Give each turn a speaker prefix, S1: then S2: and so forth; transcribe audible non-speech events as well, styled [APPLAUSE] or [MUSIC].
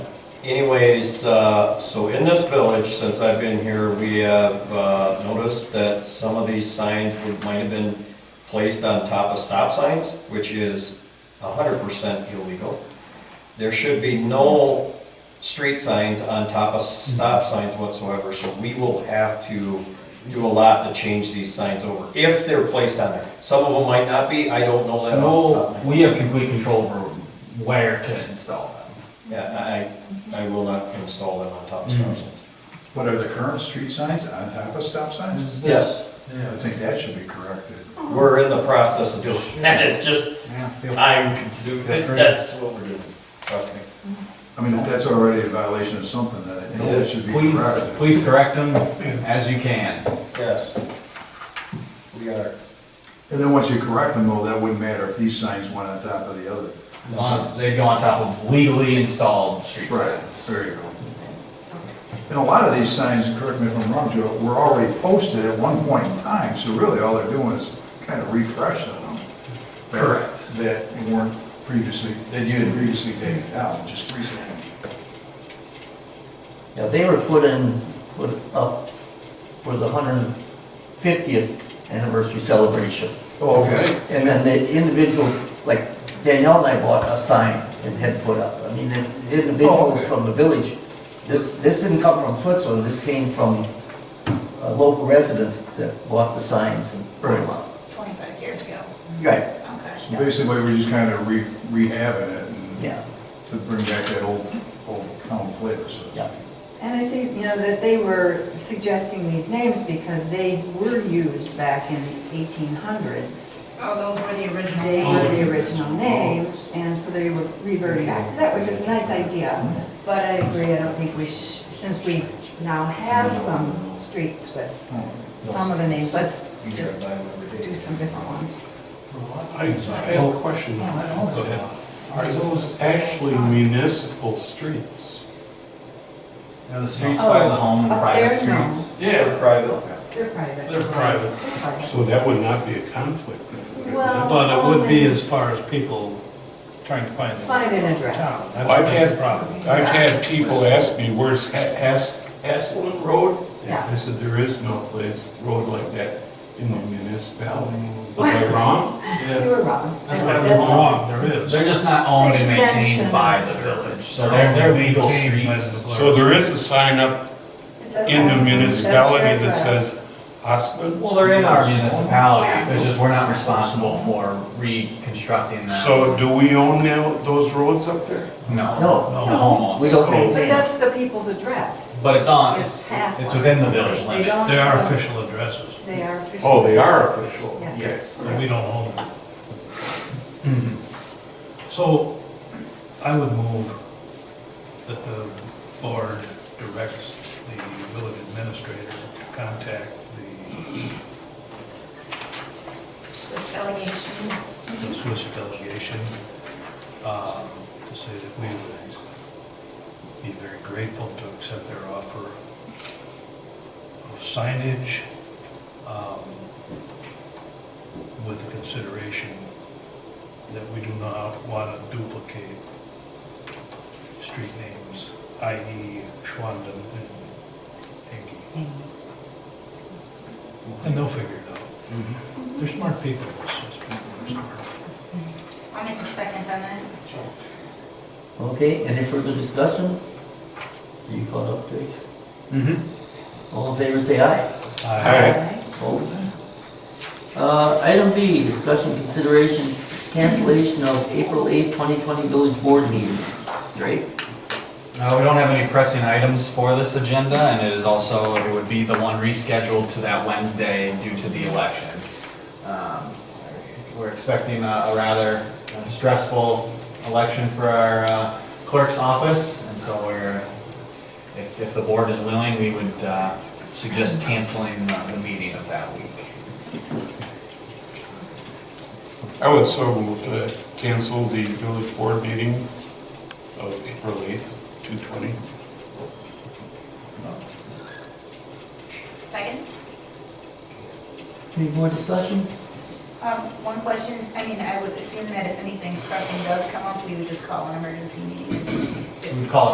S1: Anyways, uh, so in this village, since I've been here, we have uh, noticed that some of these signs would- might have been placed on top of stop signs, which is 100% illegal. There should be no street signs on top of stop signs whatsoever, so we will have to do a lot to change these signs over, if they're placed on there. Some of them might not be, I don't know that off the top of my
S2: No,
S1: head.
S2: we have complete control over where to install them.
S1: Yeah, I, I will not install them on top of stop signs.
S3: What are the current street signs on top of stop
S2: Mm-hmm.
S3: signs?
S1: Yes.
S3: I think that should be corrected.
S1: We're in the process of doing that, it's just, I'm consumed,
S2: Feel free.
S1: that's what we're doing. Trust me.
S3: I mean, if that's already a violation of something, then I think that should be
S2: Please,
S3: corrected.
S2: please correct them as you can.
S1: Yes. We are.
S3: And then once you correct them, though, that wouldn't matter if these signs went on top of the other.
S2: As long as they go on top of legally installed street
S3: Right,
S2: signs.
S3: there you go. And a lot of these signs, and correct me if I'm wrong, Joe, were already posted at one point in time, so really all they're doing is kind of refreshing them. that-
S2: Correct.
S3: That weren't previously, that you had previously taken down, just recently.
S4: Yeah, they were put in, put up for the hundred and fiftieth anniversary celebration.
S3: Oh, okay.
S4: And then the individual, like Danielle and I bought a sign and had put up. I mean, the
S3: Oh,
S4: individual
S3: okay.
S4: from the village, this, this didn't come from Switzerland, this came from uh, local residents that bought the signs and put them
S3: Right.
S4: up.
S5: 25 years ago.
S4: Right,
S5: Okay.
S3: So basically, we're just kind of re- rehabbing it and
S4: yeah,
S3: to bring back that old, old town flavor, so to speak.
S4: yeah.
S6: And I see, you know, that they were suggesting these names because they were used back in the 1800s.
S5: Oh, those were the original
S6: They were
S5: names.
S6: the original names, and so they were reverting back to that, which is a nice idea. But I agree, I don't think we sh since we now have some streets with some of the names, let's
S1: You drive
S6: just
S1: by them every day.
S6: do some different ones.
S7: I I have a question. Go ahead. Are those actually municipal streets?
S2: Now, the streets by the home and
S6: Oh, Up
S2: private
S6: there, no.
S2: streets.
S1: They're private.
S6: They're private.
S7: They're private,
S6: They're private.
S7: so that would not be a conflict.
S6: Well,
S7: But it would be
S6: only-
S7: as far as people trying to find the
S6: Find an
S7: town.
S6: address.
S7: That's
S8: I've
S7: the
S8: had-
S7: problem.
S8: I've had people ask me, where's Ha- Has- Haslam Road?
S6: Yeah.
S7: I said, there is no place, road like that in the
S6: [LAUGHS]
S7: municipality. Was I wrong?
S6: You were wrong.
S7: That's why I'm wrong, there is.
S2: They're just not owned and
S6: extension
S2: maintained
S6: of-
S2: by the village, so they're, they're legal
S7: Came by
S2: streets.
S7: the
S8: So there is a sign up
S6: It says
S8: in the
S6: Aspen. That's their
S8: municipality that
S6: address.
S8: says Haslam.
S2: Well, they're in our municipality, it's just we're not responsible for reconstructing them.
S8: So do we own now those roads up there?
S2: No,
S4: No,
S2: the home owns.
S4: we don't own
S6: But that's the people's address.
S2: But it's on,
S6: It's
S2: it's,
S6: past
S2: it's
S6: one.
S2: within the village
S6: They
S2: limits.
S6: don't-
S7: They are official addresses,
S6: They are official.
S8: Oh, they are official.
S6: Yes.
S7: and we don't own them.
S2: Mhm.
S1: Mm-hmm.
S7: So I would move that the board directs the village administrator to contact
S5: Those allegations. Mm-hmm.
S7: the the Swiss delegation um, to say that we would be very grateful to accept their offer of signage um, with the consideration that we do not want to duplicate street names, i.e. Schwanden and Engie. And they'll figure it out. They're smart people, those Swiss people are smart.
S5: I'll make a second on that.
S4: Okay, any further discussion? You caught up, Dick?
S2: Mhm.
S3: Mm-hmm.
S4: All in favor, say aye.
S7: Aye.
S4: Opposed? Uh, Item B, discussion consideration cancellation of April 8th, 2020 village board meeting. Great.
S2: Uh, we don't have any pressing items for this agenda, and it is also, it would be the one rescheduled to that Wednesday due to the election. Um, We're expecting a a rather uh, stressful election for our uh, clerk's office, and so we're, if, if the board is willing, we would uh, suggest canceling the the meeting of that week.
S8: I would so move to cancel the village board meeting of April 8th, 220.
S5: Second?
S4: Any more discussion?
S5: Um, One question, I mean, I would assume that if anything pressing does come up, we would just call an emergency meeting.
S2: We would call a